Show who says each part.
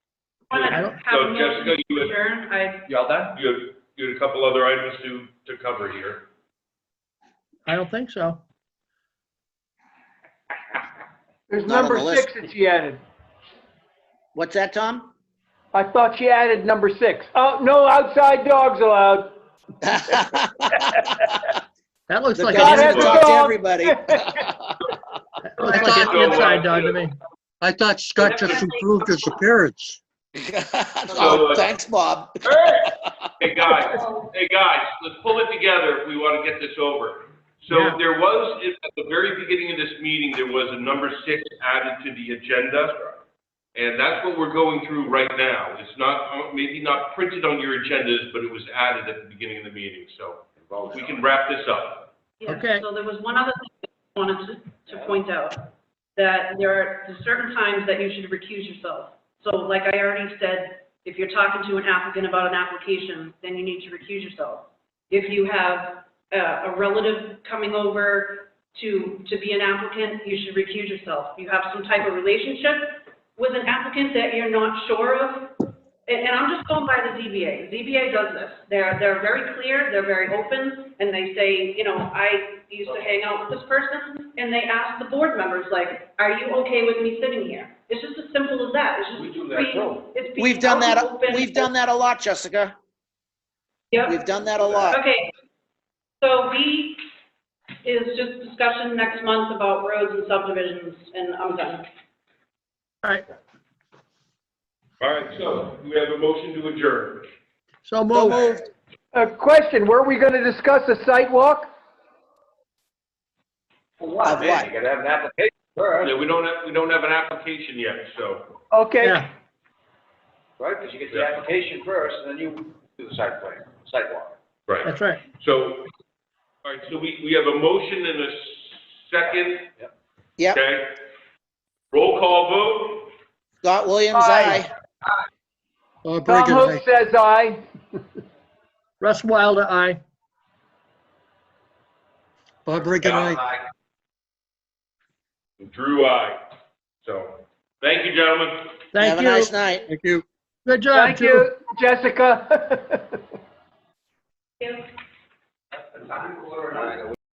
Speaker 1: wanna
Speaker 2: I don't-
Speaker 1: have
Speaker 3: So
Speaker 1: a
Speaker 3: Jessica,
Speaker 1: motion
Speaker 3: you would-
Speaker 1: adjourned, I,
Speaker 2: You all done?
Speaker 3: You have, you had a couple other items to, to cover here.
Speaker 2: I don't think so.
Speaker 4: There's
Speaker 5: Not on
Speaker 4: number
Speaker 5: the list.
Speaker 4: six that she added.
Speaker 5: What's that, Tom?
Speaker 4: I thought she added number six. Oh, no outside dogs allowed.
Speaker 2: That looks
Speaker 5: The
Speaker 2: like
Speaker 5: dog
Speaker 4: God
Speaker 2: an
Speaker 4: has
Speaker 5: has
Speaker 4: a
Speaker 2: inside,
Speaker 5: talked to
Speaker 4: dog.
Speaker 5: everybody.
Speaker 2: that looks like
Speaker 3: So, uh,
Speaker 2: an inside dog to me.
Speaker 6: I thought Scott just improved his appearance.
Speaker 5: Oh, Thanks, Bob.
Speaker 3: Hey, guys, hey, guys, let's pull it together if we want to get this over. So
Speaker 2: Yeah.
Speaker 3: there was, at the very beginning of this meeting, there was a number six added to the agenda. And that's what we're going through right now. It's not, maybe not printed on your agendas, but it was added at the beginning of the meeting, so we can wrap this up.
Speaker 1: yeah.
Speaker 2: Okay.
Speaker 1: So there was one other thing I wanted to, to point out, that there are certain times that you should recuse yourself. So like I already said, if you're talking to an applicant about an application, then you need to recuse yourself. If you have uh, a, a relative coming over to, to be an applicant, you should recuse yourself. You have some type of relationship with an applicant that you're not sure of, and, and I'm just going by the ZBA. ZBA does this. They're, they're very clear, they're very open, and they say, you know, I used to hang out with this person, and they ask the board members, like, are you okay with me sitting here? It's just as simple as that. It's just.
Speaker 3: We do that
Speaker 1: being-
Speaker 3: too.
Speaker 1: It's being.
Speaker 5: We've done that,
Speaker 1: open.
Speaker 5: we've done that a lot, Jessica.
Speaker 1: Yep.
Speaker 5: We've done that a lot.
Speaker 1: Okay, so B is just discussion next month about roads and subdivisions, and I'm done.
Speaker 2: All right,
Speaker 3: All right, so we have a motion to adjourn.
Speaker 2: so
Speaker 5: So
Speaker 2: move.
Speaker 5: moved.
Speaker 4: A Uh, question, were we going to discuss a site walk?
Speaker 5: Of what?
Speaker 3: Yeah, we don't have, we don't have an application yet, so.
Speaker 4: Okay,
Speaker 2: Yeah,
Speaker 7: Right, because you get the application first, and then you do the site plan, sidewalk.
Speaker 3: Right.
Speaker 2: that's right.
Speaker 3: So, all right, so we, we have a motion and a second,
Speaker 5: Yep,
Speaker 3: okay? Roll call vote,
Speaker 5: Scott Williams,
Speaker 4: Aye.
Speaker 5: aye.
Speaker 6: Bob
Speaker 4: Tom
Speaker 6: Reagan,
Speaker 4: Hook
Speaker 6: thank-
Speaker 4: says aye.
Speaker 2: Russ Wilder, aye.
Speaker 6: Bob Reagan, aye.
Speaker 3: Drew, I. So, thank you, gentlemen.
Speaker 5: Have
Speaker 2: Thank
Speaker 5: a nice
Speaker 2: you.
Speaker 5: night.
Speaker 6: Thank you.
Speaker 2: Good job,
Speaker 4: Thank
Speaker 2: too.
Speaker 4: you, Jessica.
Speaker 1: Yeah.